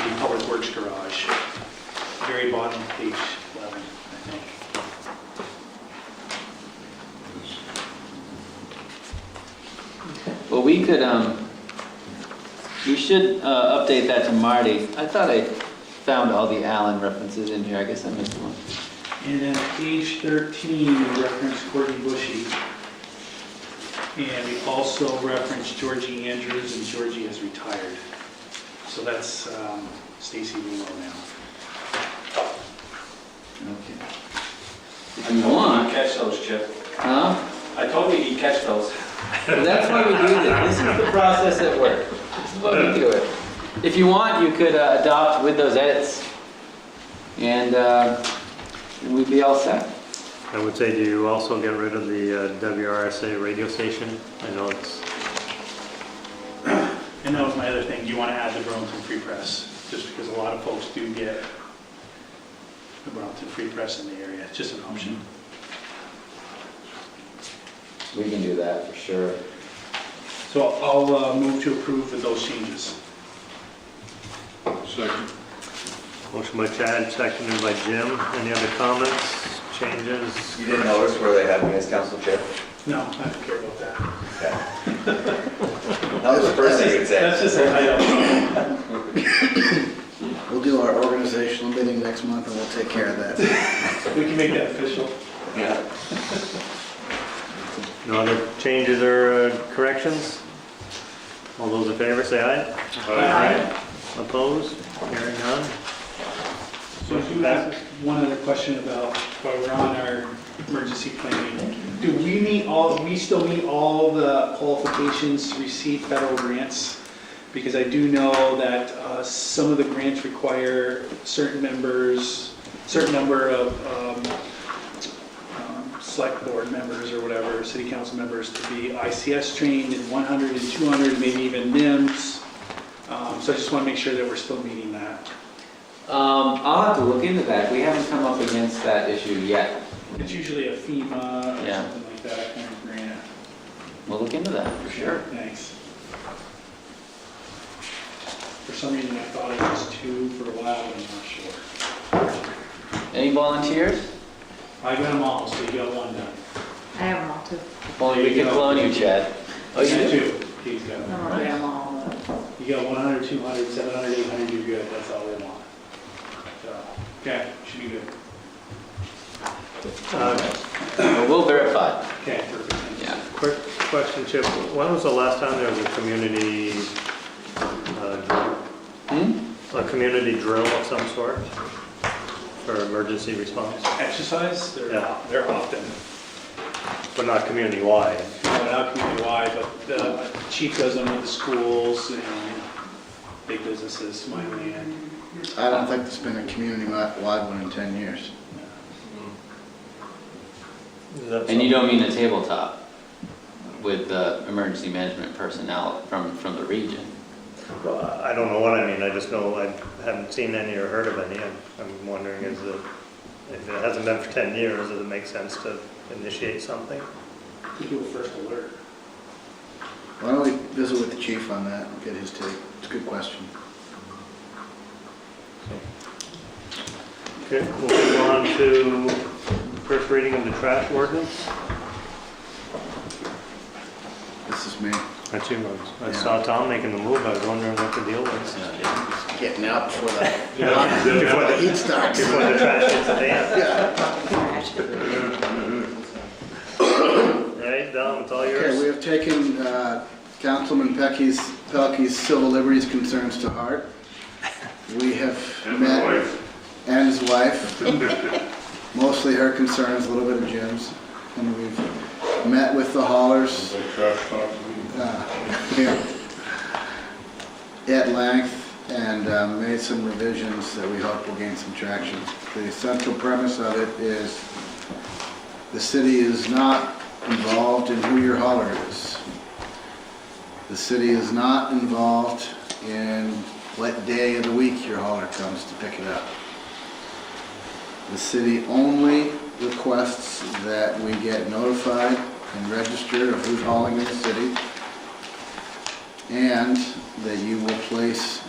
service garage, very bottom of page 11, I think. Well, we could, um, you should, uh, update that to Marty. I thought I found all the Allen references in here, I guess I missed one. And then page 13, we reference Courtney Bushy. And we also reference Georgie Andrews, and Georgie has retired. So that's um, Stacy Rulo now. Okay. If you want, Catch those, Chip. huh? I told you he'd catch those. Well, That's why we do this, this is the process at work. This is why we do it. If you want, you could uh, adopt with those edits, and, uh, and we'd be all set. I would say, do you also get rid of the uh, WRSA radio station? I know it's, And that was my other thing, you want to add the Burlington Free Press, just because a lot of folks do get the Burlington Free Press in the area, it's just an option. We can do that for sure. So I'll uh, move to approve with those changes. Second. motion by Chad, seconded by Jim. Any other comments, changes? You didn't notice where they had me as council chair? No, I don't care about that. That was the first thing you'd That's say. just a title. We'll do our organizational meeting next month and we'll take care of that. We can make that official. No other changes or uh, corrections? All those in favor, say aye. Opposed? Hearing none? So I do have one other question about, while we're on our emergency planning. Do we meet all, we still meet all the qualifications to receive federal grants? Because I do know that uh, some of the grants require certain members, certain number of um, um, select board members or whatever, city council members to be ICS trained in 100 and 200, maybe even NIMS. Um, So I just want to make sure that we're still meeting that. Um, I'll have to look into that, we haven't come up against that issue yet. It's usually a FEMA or Yeah. something like that kind of grant. We'll look into that, for sure. Thanks. For some reason, I thought it was two for a while, but I'm not sure. Any volunteers? I got them all, so you got one done. I have them all too. If only we could clone you, Chad. Oh, you Yeah, do? Two, he's got I them. don't know if I have them all. but- You got 100, 200, 700, 800, you're good, that's all they want. So, Okay, should be good. Uh, Well, We'll verify. Okay, perfect. thanks. Yeah. Quick question, Chip. When was the last time there was a community, uh, Hmm? a community drill of some sort for emergency response? Exercise, they're, Yeah. they're often, But not community-wide. not community-wide, but the chief does them with the schools and big businesses, my land. I don't think there's been a community-wide one in 10 years. Is that And you don't mean a tabletop with the emergency management personnel from, from the region? Well, I don't know what I mean, I just know I haven't seen any or heard of any. I'm- I'm wondering is it, if it hasn't been for 10 years, does it make sense to initiate something? We do a first alert. Why don't we visit with the chief on that and get his take? It's a good question. Okay, we'll move on to first reading of the trash ordinance. This is me. That's you, I saw Tom making the move, I was wondering what the deal was. Getting out before the, Before before the the heat starts. before the trash hits the fan. Right, Dom, it's all Okay, we yours. have taken uh, Councilman Pecky's, Pelkey's civil liberties concerns to heart. We have And my met, wife. and his wife, mostly her concerns, a little bit of Jim's. And we've met with the haulers, They trash talk me. uh, here at length and uh, made some revisions that we hope will gain some traction. The essential premise of it is the city is not involved in who your hauler is. The city is not involved in what day of the week your hauler comes to pick it up. The city only requests that we get notified and registered of who's hauling in the city and that you will place